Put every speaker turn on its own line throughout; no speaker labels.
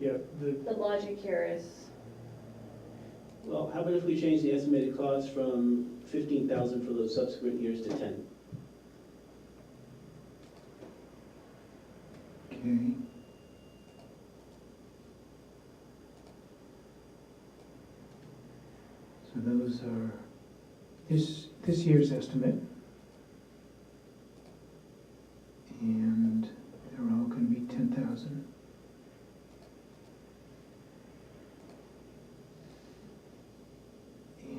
Yeah, the,
The logic here is,
Well, how about if we change the estimated cost from fifteen thousand for those subsequent years to ten?
Okay. So those are,
Is this year's estimate,
and they're all gonna be ten thousand.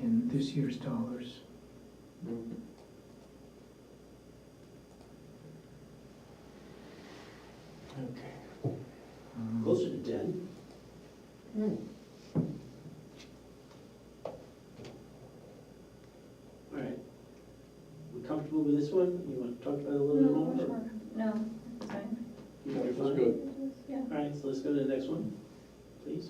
And this year's dollars,
okay.
um,
Closer to ten? Hmm. All right. We comfortable with this one? You want to talk about it a little bit more? or
no, it's fine.
you
That's
guys fine?
good.
Yeah.
All right, so let's go to the next one, please.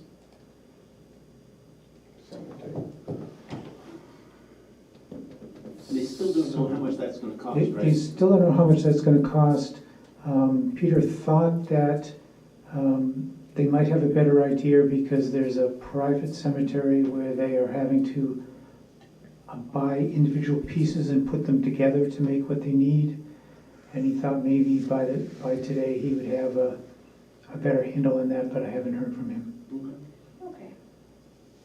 And they still don't know how much that's gonna cost,
They- They
right?
still don't know how much that's gonna cost. Um, Peter thought that um, they might have a better idea because there's a private cemetery where they are having to uh, buy individual pieces and put them together to make what they need. And he thought maybe by, the- by today, he would have a, a better handle on that, but I haven't heard from him.
Okay.
Okay.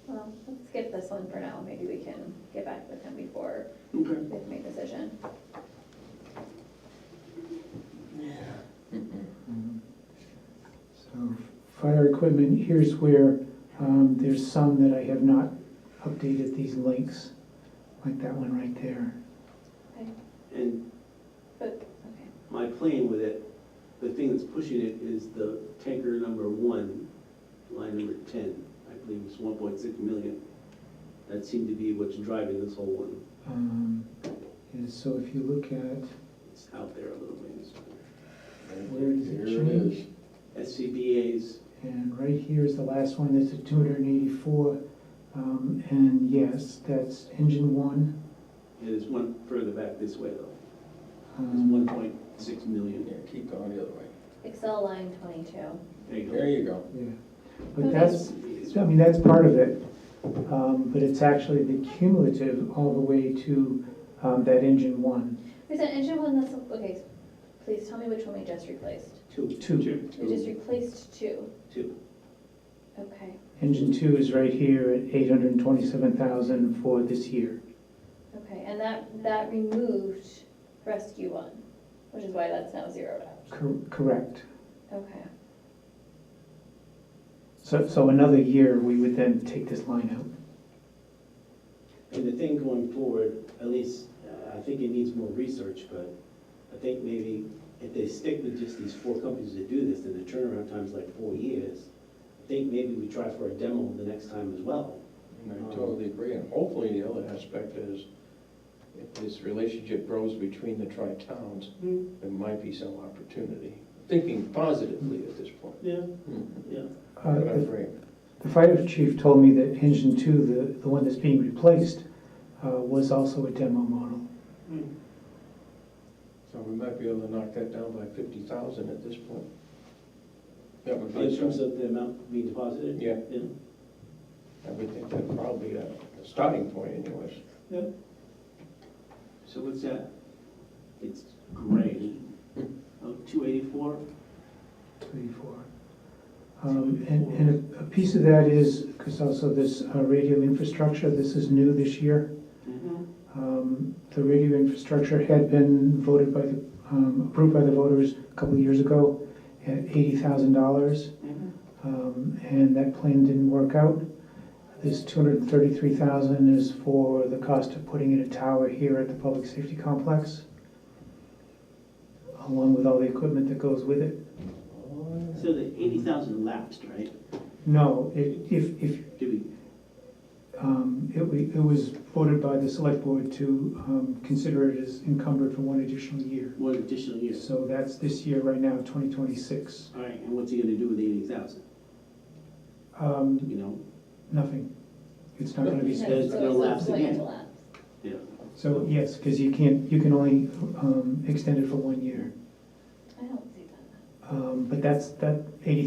Well, let's skip this one for now, maybe we can get back with him before
Okay.
we make a decision.
um, so,
Fire equipment, here's where, um, there's some that I have not updated these links, like that one right there.
And
Okay.
my plan with it, the thing that's pushing it is the tanker number one, line number ten, I believe it's one point six million. That seemed to be what's driving this whole one.
Um, And so if you look at,
It's out there a little ways.
Where does it
Here is.
SCBA's,
and right here is the last one, that's a two hundred and eighty-four. Um, and yes, that's engine one.
is one further back this way though, it's
Um,
one point six million.
Yeah, keep going the other way.
Excel line twenty-two.
There you go.
There you go.
Yeah, but that's, I mean, that's part of it. Um, but it's actually the cumulative all the way to, um, that engine one.
Is that engine one that's, okay, please tell me which one we just replaced.
Two.
Two.
We just replaced two,
Two.
okay,
Engine two is right here at eight hundred and twenty-seven thousand for this year.
okay, and that, that removed rescue one, which is why that's now zeroed out.
Cor- Correct.
Okay,
So, so another year, we would then take this line out.
And the thing going forward, at least, uh, I think it needs more research, but I think maybe if they stick with just these four companies that do this, then the turnaround time's like four years. I think maybe we try for a demo the next time as well.
And I totally agree, and hopefully the other aspect is, if this relationship grows between the tri-towns,
Mm-hmm.
there might be some opportunity, thinking positively at this point.
Yeah,
Hmm.
yeah.
Uh,
But I
the-
agree.
The fire chief told me that engine two, the, the one that's being replaced, uh, was also a demo model.
So we might be able to knock that down by fifty thousand at this point. That would be,
In terms
some-
of the amount being deposited?
yeah,
Yeah.
I would think that's probably a a starting point anyways.
So what's that? It's gray. Oh, two eighty-four?
Thirty-four. Um, and, and a- a piece of that is, because also this uh, radio infrastructure, this is new this year.
Mm-hmm.
Um, the radio infrastructure had been voted by the, um, approved by the voters a couple of years ago at eighty thousand dollars.
Mm-hmm.
Um, and that plan didn't work out. This two hundred and thirty-three thousand is for the cost of putting in a tower here at the public safety complex, along with all the equipment that goes with it.
Oh,
So the eighty thousand lapsed, right?
No, it, if, if,
Did we,
um, it, wa- it was voted by the select board to, um, consider it as encumbered for one additional year.
one additional year?
So that's this year right now, twenty twenty-six.
All right, and what's he gonna do with the eighty thousand,
Um,
you know?
nothing. It's not gonna
He
be
so
said
spent.
it's
it's
gonna lapse
going
again.
to lapse.
Yeah.
So, yes, because you can't, you can only, um, extend it for one year.
I don't see that.
Um, but that's, that eighty